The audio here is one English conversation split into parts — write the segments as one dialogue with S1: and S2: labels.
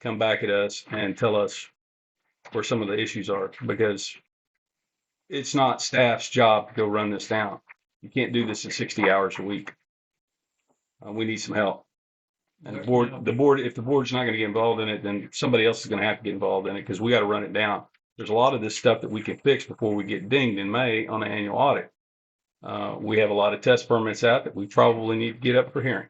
S1: come back at us and tell us where some of the issues are, because it's not staff's job to go run this down. You can't do this in sixty hours a week. Uh, we need some help. And the board, the board, if the board's not gonna get involved in it, then somebody else is gonna have to get involved in it, because we gotta run it down. There's a lot of this stuff that we can fix before we get dinged in May on the annual audit. Uh, we have a lot of test permits out that we probably need to get up for hearing.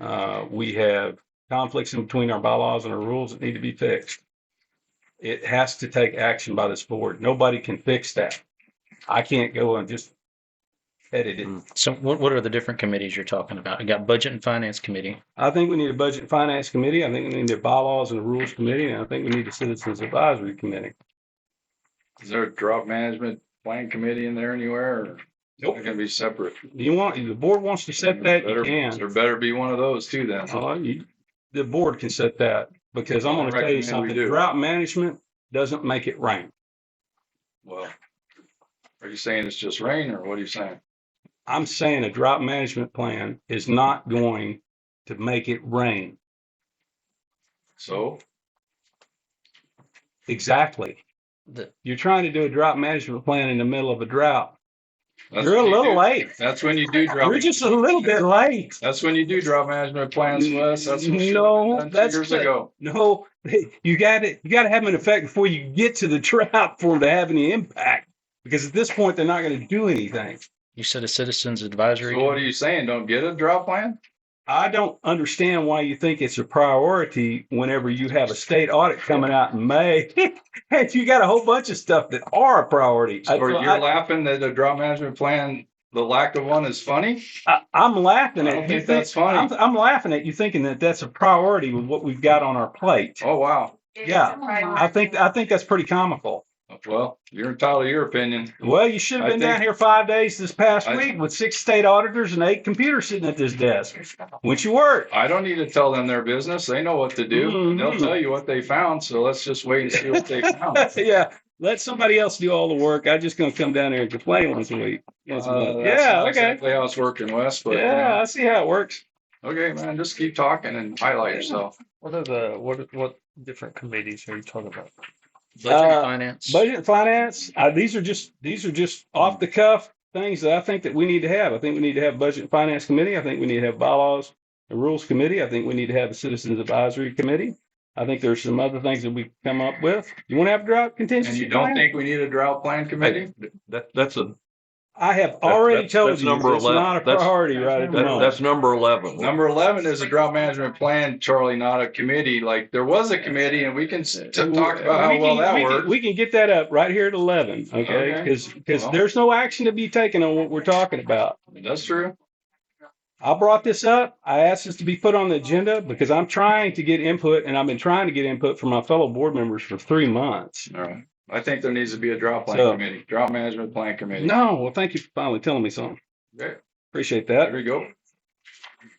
S1: Uh, we have conflicts in between our bylaws and our rules that need to be fixed. It has to take action by this board. Nobody can fix that. I can't go and just edit
S2: Mm-hmm.
S1: it.
S3: So what, what are the different committees you're talking about? You got budget and finance committee.
S1: I think we need a budget and finance committee. I think we need a bylaws and rules committee, and I think we need a citizens advisory committee.
S2: Is there a drought management plan committee in there anywhere or?
S1: Nope.
S2: They're gonna be separate.
S1: You want, if the board wants to set that, you
S2: Better-
S1: can.
S2: There better be one of those too then.
S1: Uh, you- The board can set that, because I'm gonna tell you
S2: Recommend we
S1: something,
S2: do.
S1: drought management doesn't make it rain.
S2: Well. Are you saying it's just rain or what are you saying?
S1: I'm saying a drought management plan is not going to make it rain.
S2: So?
S1: Exactly.
S3: The-
S1: You're trying to do a drought management plan in the middle of a drought.
S2: that's
S1: You're a
S2: when you
S1: little
S2: do-
S1: late.
S2: That's when you do drought.
S1: You're just a little bit late.
S2: That's when you do drought management plans, Wes. That's. what you
S1: No,
S2: done two
S1: that's
S2: Years
S1: the-
S2: ago.
S1: No, you got to You got to have an effect before you get to the drought for them to have any impact. Because at this point, they're not going to do anything.
S3: You said a citizens advisory.
S2: So what are you saying? Don't get a drought plan?
S1: I don't understand why you think it's a priority whenever you have a state audit coming out in May. and you got a whole bunch of stuff that are a priority. I-
S2: Or
S1: I-
S2: you're laughing that a drought management plan, the lack of one is funny?
S1: I, I'm laughing
S2: I
S1: at
S2: don't
S1: you. think-
S2: think that's funny.
S1: I'm, I'm laughing at you thinking that that's a priority with what we've got on our plate.
S2: Oh, wow.
S1: Yeah, I think I think that's pretty comical.
S2: Well, you're entitled to your opinion.
S1: Well, you should have
S2: I
S1: been
S2: think-
S1: down here five days this past
S2: I-
S1: week with six state auditors and eight computers sitting at this desk. Went you work?
S2: I don't need to tell them their business. They know what to do. They'll
S1: Mhm.
S2: tell you what they found. So let's just wait and see what they found. Uh,
S1: yeah. Let somebody else do all the work. I'm just gonna come down here and complain once a week. Once a
S2: Uh,
S1: month.
S2: that's
S1: yeah.
S2: not
S1: Okay.
S2: Exactly how it's working, Wes, but
S1: Yeah.
S2: yeah.
S1: I see how it works.
S2: Okay, man, just keep talking and highlight yourself.
S4: What are the, what, what different committees are you talking about?
S3: Budget
S1: uh,
S3: and finance.
S1: Budget and finance, uh, these are just, these are just off the cuff things that I think that we need to have. I think we need to have budget and finance committee. I think we need to have bylaws and rules committee. I think we need to have a citizens advisory committee. I think there's some other things that we can come up with. You want to have drought
S2: And
S1: contingency?
S2: you don't
S1: plan?
S2: think we need a drought plan committee?
S5: That, that's a,
S1: I have already
S5: that's-
S1: told
S5: that's
S1: you,
S5: number
S1: it's
S5: 11.
S1: not a
S5: That's-
S1: priority right at the
S5: that,
S1: moment.
S5: that's number eleven.
S2: Number eleven is a drought management plan, Charlie, not a committee. Like there was a committee and we can s- t- talk about
S1: We
S2: how
S1: can-
S2: well
S1: we
S2: that
S1: can-
S2: worked.
S1: We can get that up right here at eleven, okay?
S2: Okay.
S1: Because,
S2: Well.
S1: there's no action to be taken on what we're talking about.
S2: That's true.
S1: I brought this up. I asked this to be put on the agenda because I'm trying to get input and I've been trying to get input from my fellow board members for three months.
S2: All right. I think there needs to be a drought
S1: So-
S2: plan committee, drought management plan committee.
S1: No, well, thank you for finally telling me something.
S2: Okay,
S1: Appreciate
S2: There
S1: that.
S2: we go.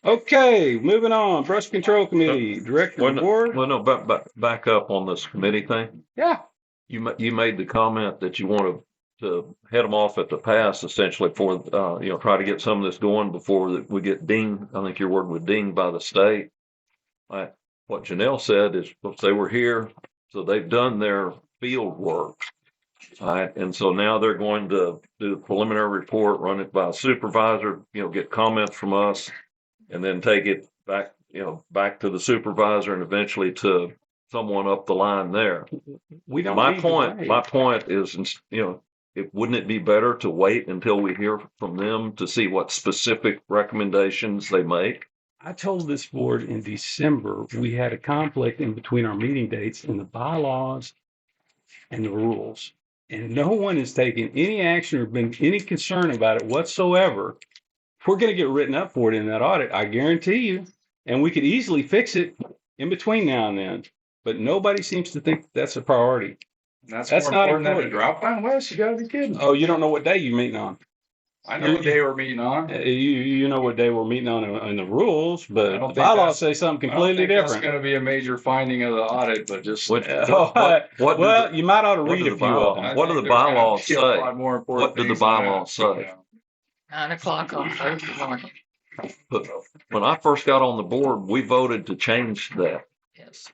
S1: Okay, moving on. Brush Control Committee, Director
S5: Well,
S1: of the Board.
S5: Well, no, but, but back up on this committee thing.
S1: Yeah.
S5: You ma- you made the comment that you want to, to head them off at the pass essentially for, uh, you know, try to get some of this going before that we get dinged. I think your word was dinged by the state. Like, what Janelle said is, oops, they were here, so they've done their field work. All right, and so now they're going to do the preliminary report, run it by supervisor, you know, get comments from us. And then take it back, you know, back to the supervisor and eventually to someone up the line there.
S1: We don't.
S5: My
S1: need to
S5: point,
S1: wait.
S5: my point is, ins- you know, it, wouldn't it be better to wait until we hear from them to see what specific recommendations they make?
S1: I told this board in December, we had a conflict in between our meeting dates and the bylaws and the rules. And no one has taken any action or been any concern about it whatsoever. We're going to get written up for it in that audit, I guarantee you. And we could easily fix it in between now and then. But nobody seems to think that's a priority.
S2: That's
S1: That's
S2: more
S1: not
S2: important than a
S1: important.
S2: drought plan, Wes. You gotta be kidding.
S1: Oh, you don't know what day you're meeting on.
S2: I know what day we're meeting on.
S1: Uh, You, you know what day we're meeting on in in the rules, but
S2: I
S1: the
S2: don't think that's-
S1: bylaws say something completely
S2: It's
S1: different.
S2: gonna be a major finding of the audit, but just.
S5: What-
S1: Oh,
S5: what- what- what do
S1: Well,
S5: the-
S1: you might ought to
S5: what
S1: read
S5: do
S1: a
S5: the
S1: few of them.
S5: bylaws- what do the bylaws say?
S2: What
S5: What do the bylaws say?
S6: Nine o'clock on Thursday morning.
S5: But when I first got on the board, we voted to change that.